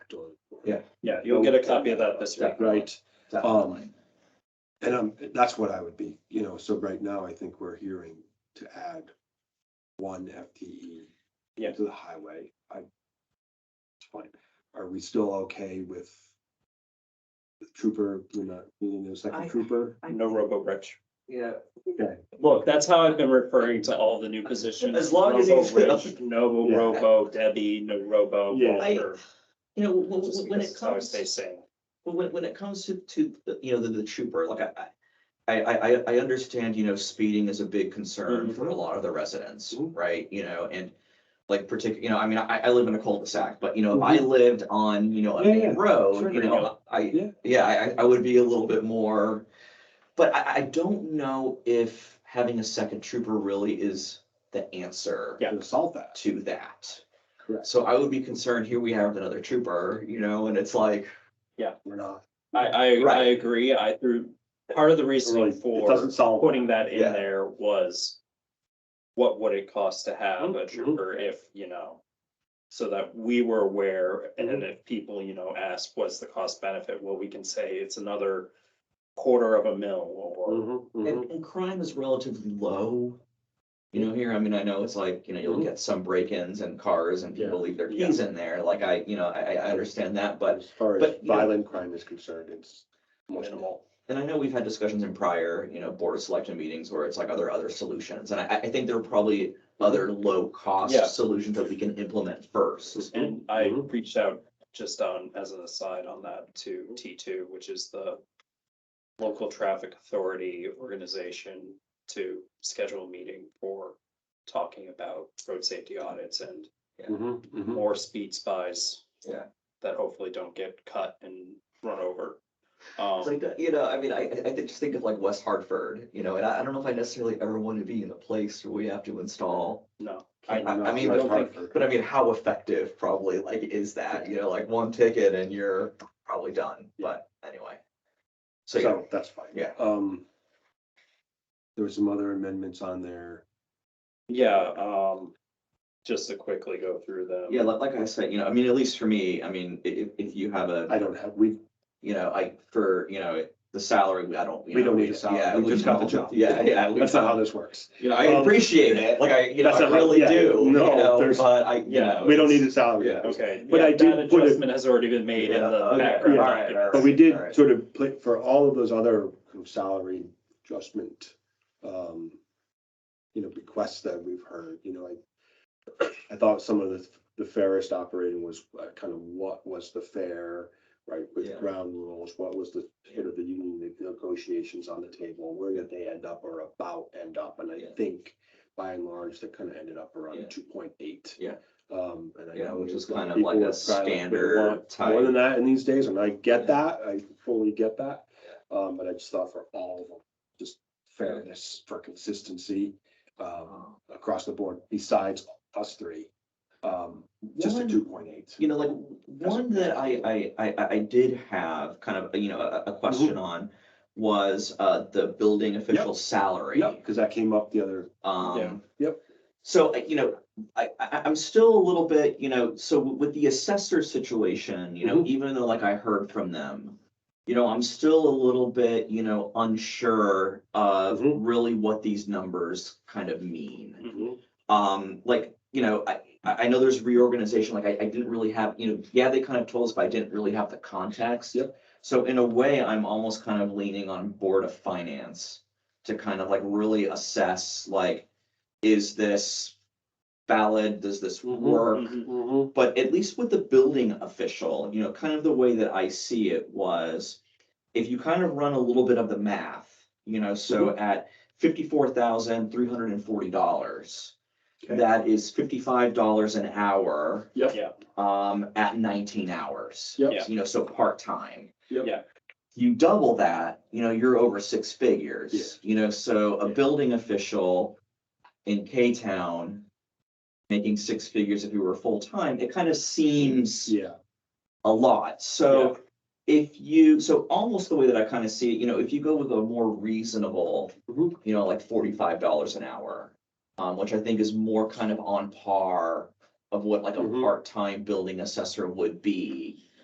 Yeah, you'll get a copy of that this week. right? Definitely. And um, that's what I would be, you know, so right now I think we're hearing to add one FTE Yeah. to the highway. I, it's fine. Are we still okay with the trooper, we're not needing a I- second trooper? No robo bridge. Yeah, Look, that's how I've been referring to all the new positions. As long as he's- Robo-Rich, No Yeah. robo, Debbie, no robo. Yeah. I- Walter, you know, when, just when because it it's how I comes, stay sane. when, when- when it comes to, to, the- you know, the, the trooper, like I, I, I, I, I understand, you know, speeding is a big concern for a lot of the residents, Mhm. right? You know, and like particular, you know, I mean, I, I live in a cul-de-sac, but you know, if I lived on, you know, a Yeah, main yeah. road, Sure. you know, Yeah. I, yeah, I, I would be a little bit more. But I, I don't know if having a second trooper really is the answer Yeah. To solve that. to that. Correct. So I would be concerned, here we have another trooper, you know, and it's like, We're not. I, I, I Right. agree. I threw, part of the reasoning Really, it doesn't for solve. putting that in Yeah. there was what would it cost to have a Mhm. trooper if, you know, so that we were aware and then if people, you know, ask what's the cost benefit, well, we can say it's another quarter of a mil or Mhm, mhm. and, Mm-hmm. and crime is relatively low. You know, here, I mean, I know it's like, you know, you'll get some break-ins and cars and people leave their Mm-hmm. Yeah. keys in there, like I, you know, I, I I understand that, but. As far as but, you know- violent crime is concerned, it's. almost minimal. And I know we've had discussions in prior, you know, board of selection meetings where it's like, are there other solutions? And I, I think there are probably other Yeah. low-cost solutions that we can implement first. And I Mhm. reached out just on, as an aside on that to T two, which is the local traffic authority organization to schedule a meeting for talking about road safety audits and Mhm, mhm. more speed spies. Yeah. That hopefully don't get cut and run over. It's like, Um, that, you know, I mean, I, I I just think of like West Hartford, you know, and I, I don't know if I necessarily ever want to be in a place where we have to install. no, I, I I mean, I Not don't hard think- for- But I mean, how effective probably like is that, you know, like one ticket and you're probably done, but anyway. So, yeah, So that's fine. Yeah. Um. There were some other amendments on there. yeah, um, just to quickly go through them. yeah, like, like I said, you know, I mean, at least for me, I mean, i- if, if you have a, I don't have, we, you know, I, for, you know, the salary, I don't. you We know, don't need a salary. yeah, We just got the no. job. Yeah, yeah. we- that's not how this works. You know, I um, appreciate it, like I, you know, that's I not how- really yeah, do, you no, know, there's- but I, you yeah, know. We don't need it's- a salary. yeah. Okay, But yeah, I did that put it- adjustment has already been made in Yeah, the okay, background. yeah, alright, alright. documents. But we did Alright. sort of play for all of those other kind of salary adjustment. Um. You know, requests that we've heard, you know, I. I thought some of the, the fairest operating was uh, kind of what was the fair, right, with Yeah. ground rules, what was the. Sort of the union negotiations on the table, where did they end up or about end up, and Yeah. I think. By and large, they kind of ended up Yeah. around two point eight. Yeah. Um, and I Yeah, know which there's is kind of people like a that probably would standard want type. More than that in these days, and I Yeah. get that, I fully get that. Um, but I just thought for all of them, just fairness for consistency, um, Oh. across the board, besides us three. Um, just a One- two point eight. you know, like one that I, I, I, I- I did have kind of, you know, a, a question on was, uh, the building official salary. Yeah, because that came up the other, Yeah. Um. Yep. So, I- you know, I, I, I'm still a little bit, you know, so with the assessor situation, you know, Mhm. even though like I heard from them, you know, I'm still a little bit, you know, unsure of Mhm. really what these numbers kind of mean Mhm. um, like, you know, I, I I know there's reorganization, like I, I didn't really have, you know, yeah, they kind of told us, but I didn't really have the context. Yep. So in a way, I'm almost kind of leaning on Board of Finance to kind of like really assess, like, is this valid? Does this Mhm, work? mhm. But at least with the building official, you know, kind of the way that I see it was, if you kind of run a little bit of the math, you know, so at fifty-four thousand, three hundred and forty dollars, Okay. that is fifty-five dollars an hour. Yep. Mm-hmm. Yeah. Um, at nineteen hours. Yep. Yeah. You know, so part-time Yep. Yeah. you double that, you know, you're over six figures, you know, so a Yeah. building official in K-Town making six figures if you were full-time, it kind of seems yeah, a lot. So if you, so almost the way that I kind of see it, you know, if you go with a more reasonable, Mhm. you know, like forty-five dollars an hour, um, which I think is more kind of on par of what like a Mhm. part-time building assessor would be.